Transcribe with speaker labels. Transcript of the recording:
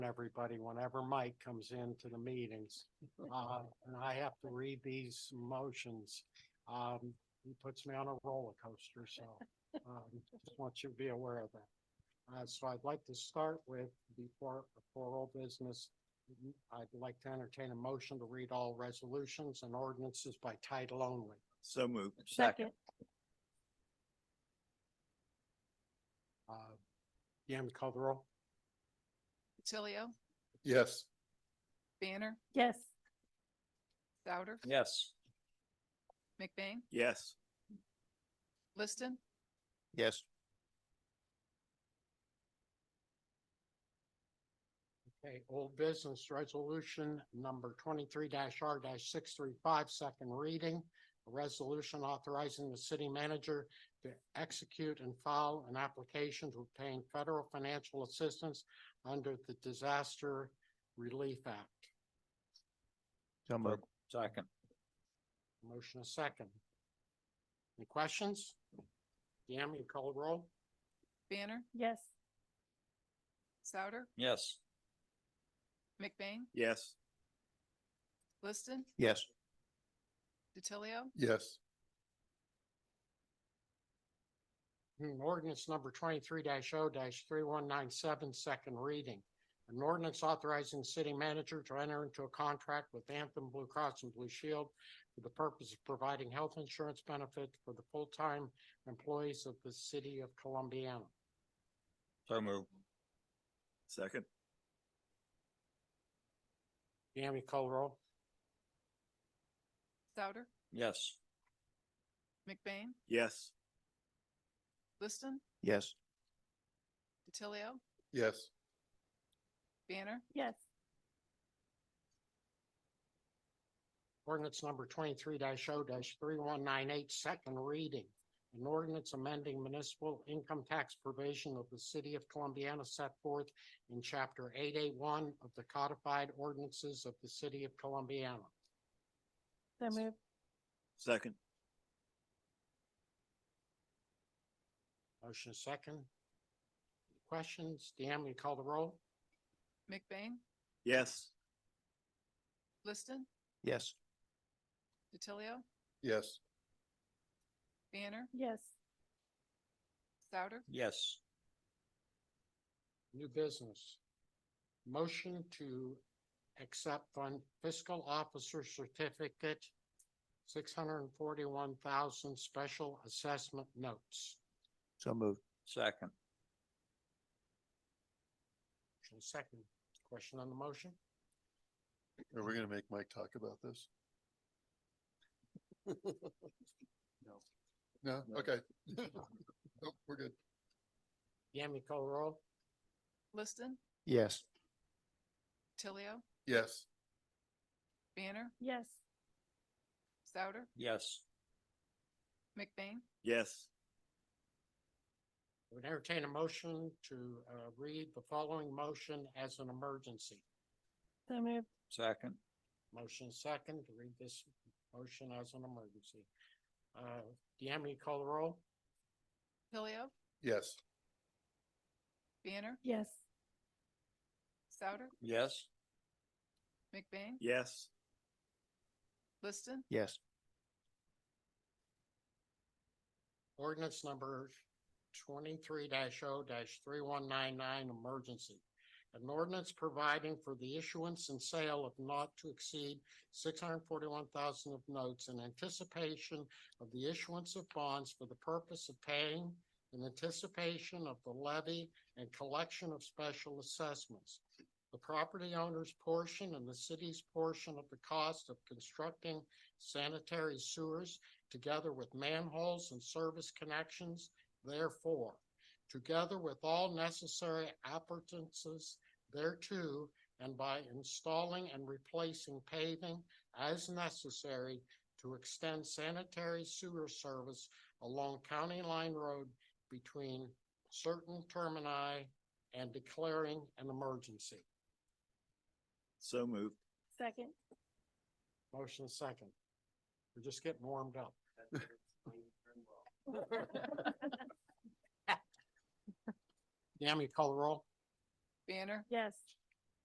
Speaker 1: everybody whenever Mike comes into the meetings. Uh, and I have to read these motions. Um, he puts me on a roller coaster, so, um, just want you to be aware of that. Uh, so I'd like to start with, before, before all business, I'd like to entertain a motion to read all resolutions and ordinances by title only.
Speaker 2: So moved.
Speaker 3: Second,
Speaker 1: Uh, Yam Coverall?
Speaker 4: DiTilio,
Speaker 2: Yes.
Speaker 4: Banner,
Speaker 3: yes,
Speaker 4: Souter,
Speaker 2: Yes.
Speaker 4: McBain,
Speaker 2: Yes.
Speaker 4: Liston,
Speaker 2: Yes.
Speaker 1: Okay, old business resolution number twenty-three R six three five, second reading. A resolution authorizing the city manager to execute and file an application to obtain federal financial assistance under the Disaster Relief Act.
Speaker 2: So moved. Second.
Speaker 1: Motion a second. Any questions? Yam, you call the roll?
Speaker 4: Banner,
Speaker 3: yes,
Speaker 4: Souter,
Speaker 2: Yes.
Speaker 4: McBain,
Speaker 2: Yes.
Speaker 4: Liston,
Speaker 2: Yes.
Speaker 4: DiTilio,
Speaker 2: Yes.
Speaker 1: Hmm, Ordinance number twenty-three 0 three one nine seven, second reading. An ordinance authorizing city manager to enter into a contract with Anthem Blue Cross and Blue Shield for the purpose of providing health insurance benefits for the full-time employees of the city of Columbiana.
Speaker 2: So moved. Second.
Speaker 1: Yami Colerole?
Speaker 4: Souter,
Speaker 2: Yes.
Speaker 4: McBain,
Speaker 2: Yes.
Speaker 4: Liston,
Speaker 2: Yes.
Speaker 4: DiTilio,
Speaker 2: Yes.
Speaker 4: Banner,
Speaker 3: yes,
Speaker 1: Ordinance number twenty-three 0 three one nine eight, second reading. An ordinance amending municipal income tax provision of the city of Columbiana set forth in chapter eight eight one of the codified ordinances of the city of Columbiana.
Speaker 3: so move,
Speaker 2: Second.
Speaker 1: Motion is second. Questions? Deanne, will you call the roll?
Speaker 4: McBain,
Speaker 2: Yes.
Speaker 4: Liston,
Speaker 2: Yes.
Speaker 4: DiTilio,
Speaker 2: Yes.
Speaker 4: Banner,
Speaker 3: yes,
Speaker 4: Souter,
Speaker 2: Yes.
Speaker 1: New business. Motion to accept fund fiscal officer certificate, six hundred and forty-one thousand special assessment notes.
Speaker 2: So moved. Second.
Speaker 1: Motion is second. Question on the motion?
Speaker 5: Are we gonna make Mike talk about this? No,
Speaker 2: No.
Speaker 5: okay. Nope, We're good.
Speaker 1: Yami Colerole?
Speaker 4: Liston,
Speaker 2: Yes.
Speaker 4: DiTilio,
Speaker 5: Yes,
Speaker 4: Banner,
Speaker 3: yes,
Speaker 4: Souter,
Speaker 2: Yes.
Speaker 4: McBain,
Speaker 2: Yes.
Speaker 1: I would entertain a motion to uh read the following motion as an emergency.
Speaker 3: so move,
Speaker 2: Second.
Speaker 1: Motion is second to read this motion as an emergency. Uh, Yami Colerole?
Speaker 4: DiTilio,
Speaker 5: yes,
Speaker 4: Banner,
Speaker 3: yes,
Speaker 4: Souter,
Speaker 2: Yes.
Speaker 4: McBain,
Speaker 2: Yes.
Speaker 4: Liston,
Speaker 2: Yes.
Speaker 1: Ordinance number twenty-three 0 three one nine nine, emergency. An ordinance providing for the issuance and sale of not to exceed six hundred forty-one thousand of notes in anticipation of the issuance of bonds for the purpose of paying in anticipation of the levy and collection of special assessments. The property owner's portion and the city's portion of the cost of constructing sanitary sewers together with manholes and service connections, therefore, together with all necessary appurtenances thereto, and by installing and replacing paving as necessary to extend sanitary sewer service along County Line Road between certain termini and declaring an emergency.
Speaker 2: So moved.
Speaker 3: second,
Speaker 1: Motion is second. We're just getting warmed up. Yami, call the roll?
Speaker 4: Banner,
Speaker 3: yes,